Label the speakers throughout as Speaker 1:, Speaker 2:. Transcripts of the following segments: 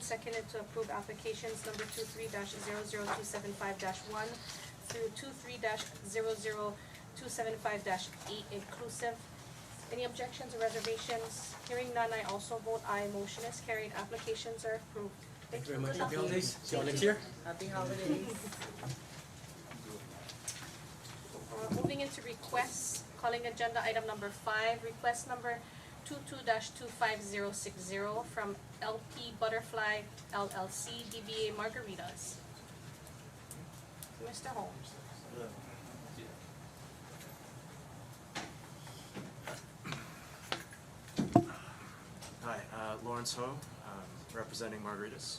Speaker 1: seconded to approve applications number two three dash zero zero two seven five dash one through two three dash zero zero two seven five dash eight inclusive. Any objections or reservations? Hearing none, I also vote aye, motion is carried, applications are approved.
Speaker 2: Thank you very much, happy holidays, see you all next year.
Speaker 3: Happy holidays.
Speaker 1: Uh, moving into requests, calling agenda item number five, request number two-two two-five-zero-six-zero from LP Butterfly LLC DBA Margaritas. Mr. Holmes,
Speaker 4: Hi, uh, Lawrence Ho, um, representing Margaritas.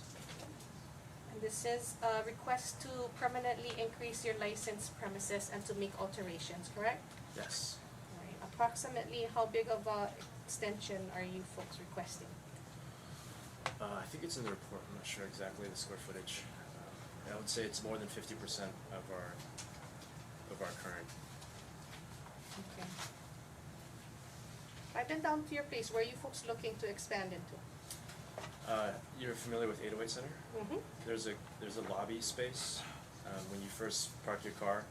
Speaker 1: and this is a request to permanently increase your license premises and to make alterations, correct?
Speaker 4: Yes,
Speaker 1: Alright, approximately how big of a extension are you folks requesting?
Speaker 4: uh, I think it's in the report, I'm not sure exactly the square footage. Um, I would say it's more than fifty percent of our, of our current.
Speaker 1: Okay. I've been down to your place, where are you folks looking to expand into?
Speaker 4: Uh, You're familiar with eight oh eight Center?
Speaker 1: Mm-hmm.
Speaker 4: There's a, there's a lobby space. Um, When you first park your car,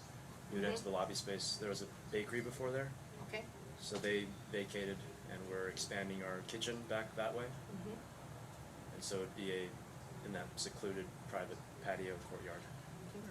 Speaker 4: you'd enter the lobby space. There was a bakery before there,
Speaker 1: Okay.
Speaker 4: so they vacated and we're expanding our kitchen back that way.
Speaker 1: Mm-hmm.
Speaker 4: And so it'd be a, in that secluded private patio courtyard.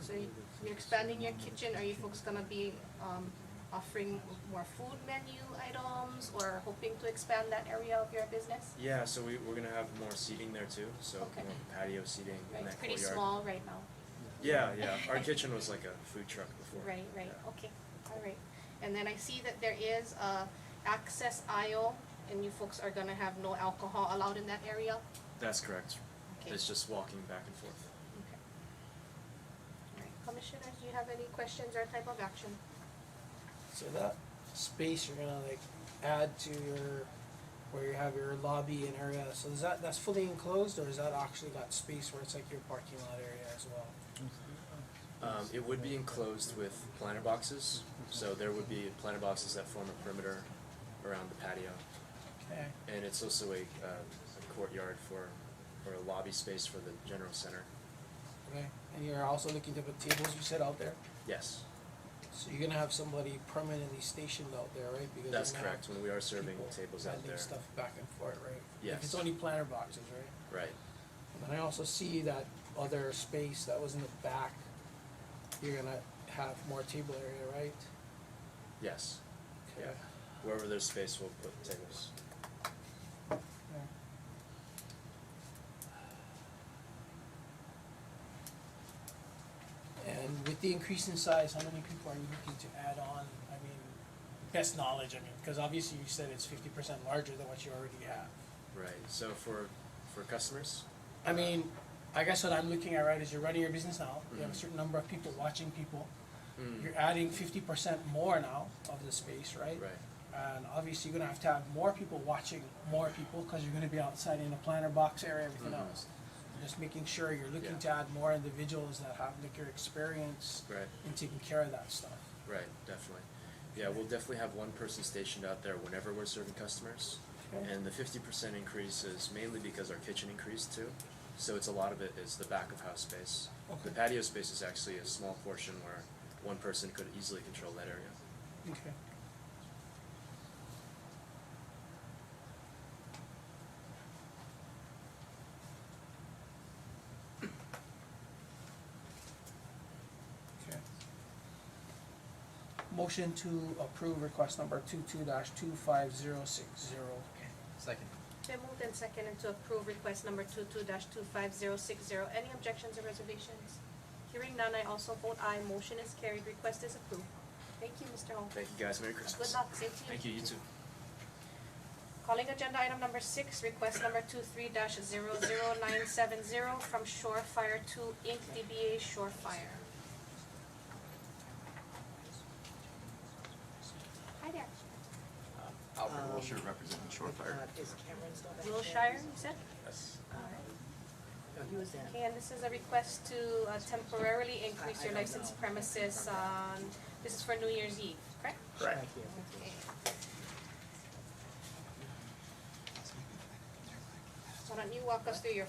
Speaker 1: So you- you're expanding your kitchen. Are you folks gonna be um, offering more food menu items or hoping to expand that area of your business?
Speaker 4: Yeah, so we, we're gonna have more seating there too, so
Speaker 1: Okay.
Speaker 4: more patio seating
Speaker 1: Right,
Speaker 4: in
Speaker 1: it's
Speaker 4: that courtyard.
Speaker 1: pretty small right now.
Speaker 4: Yeah, yeah, our kitchen was like a food truck before.
Speaker 1: Right, right,
Speaker 4: Yeah.
Speaker 1: okay, all right. And then I see that there is a access aisle and you folks are gonna have no alcohol allowed in that area?
Speaker 4: That's correct,
Speaker 1: Okay.
Speaker 4: it's just walking back and forth.
Speaker 1: Okay. All right, commissioners, do you have any questions or type of action?
Speaker 2: So that space you're gonna like add to your, where you have your lobby and area, so is that, that's fully enclosed or is that actually got space where it's like your parking lot area as well?
Speaker 4: Um, it would be enclosed with planter boxes, so there would be planter boxes that form a perimeter around the patio.
Speaker 2: Okay.
Speaker 4: And it's also a, uh, a courtyard for, or a lobby space for the general center,
Speaker 2: Okay, and you're also looking to put tables you said out there,
Speaker 4: yes.
Speaker 2: so you're gonna have somebody permanently stationed out there, right? Because
Speaker 4: That's
Speaker 2: you're gonna have
Speaker 4: correct, when we are serving
Speaker 2: people
Speaker 4: tables out
Speaker 2: moving
Speaker 4: there,
Speaker 2: stuff back and forth, right? If
Speaker 4: Yes.
Speaker 2: it's only planter boxes, right?
Speaker 4: right,
Speaker 2: And I also see that other space that was in the back, you're gonna have more table area, right?
Speaker 4: yes.
Speaker 2: Okay.
Speaker 4: Wherever there's space, we'll put tables.
Speaker 2: And with the increase in size, how many people are you looking to add on? I mean, best knowledge, I mean, because obviously you said it's fifty percent larger than what you already have.
Speaker 4: Right, so for, for customers,
Speaker 2: I mean, I guess what I'm looking at, right, is you're running your business now, you have a
Speaker 4: Mhm.
Speaker 2: certain number of people watching people.
Speaker 4: Mm.
Speaker 2: You're adding fifty percent more now of the space, right?
Speaker 4: right,
Speaker 2: And obviously, you're gonna have to have more people watching more people, because you're gonna be outside in the planter box area, everything
Speaker 4: Mhm.
Speaker 2: else. Just making sure you're looking
Speaker 4: Yeah.
Speaker 2: to add more individuals that have like your experience
Speaker 4: right,
Speaker 2: in taking care of that stuff.
Speaker 4: right, definitely. Yeah, we'll definitely have one person stationed out there whenever we're serving customers.
Speaker 2: Okay.
Speaker 4: And the fifty percent increase is mainly because our kitchen increased too, so it's a lot of it is the back of house space. The
Speaker 2: Okay.
Speaker 4: patio space is actually a small portion where one person could easily control that area.
Speaker 2: Okay. Okay. Motion to approve request number two-two dash two-five-zero-six-zero.
Speaker 5: Second.
Speaker 1: Been moved and seconded to approve request number two-two two-five-zero-six-zero. Any objections or reservations? Hearing none, I also vote aye. Motion is carried. Request is approved. Thank you, Mr. Hong.
Speaker 4: Thank you guys, Merry
Speaker 1: Good
Speaker 4: Christmas.
Speaker 1: luck. Same to you.
Speaker 4: Thank you, you too.
Speaker 1: Calling agenda item number six, request number two-three dash zero-zero-nine-seven-zero from Shore Fire Two Inc., DBA Shore Fire. Hi there.
Speaker 5: Alfred
Speaker 3: Um,
Speaker 5: Wilshire representing Shore Fire.
Speaker 3: Uh, Is Cameron still back there?
Speaker 1: Wilshire, you said?
Speaker 4: Yes.
Speaker 3: No, he was in.
Speaker 1: Okay, and this is a request to uh, temporarily increase your
Speaker 3: I- I don't
Speaker 1: license
Speaker 3: know.
Speaker 1: premises on, this is for New Year's Eve, correct?
Speaker 3: Thank you.
Speaker 1: Okay. Why don't you walk us through your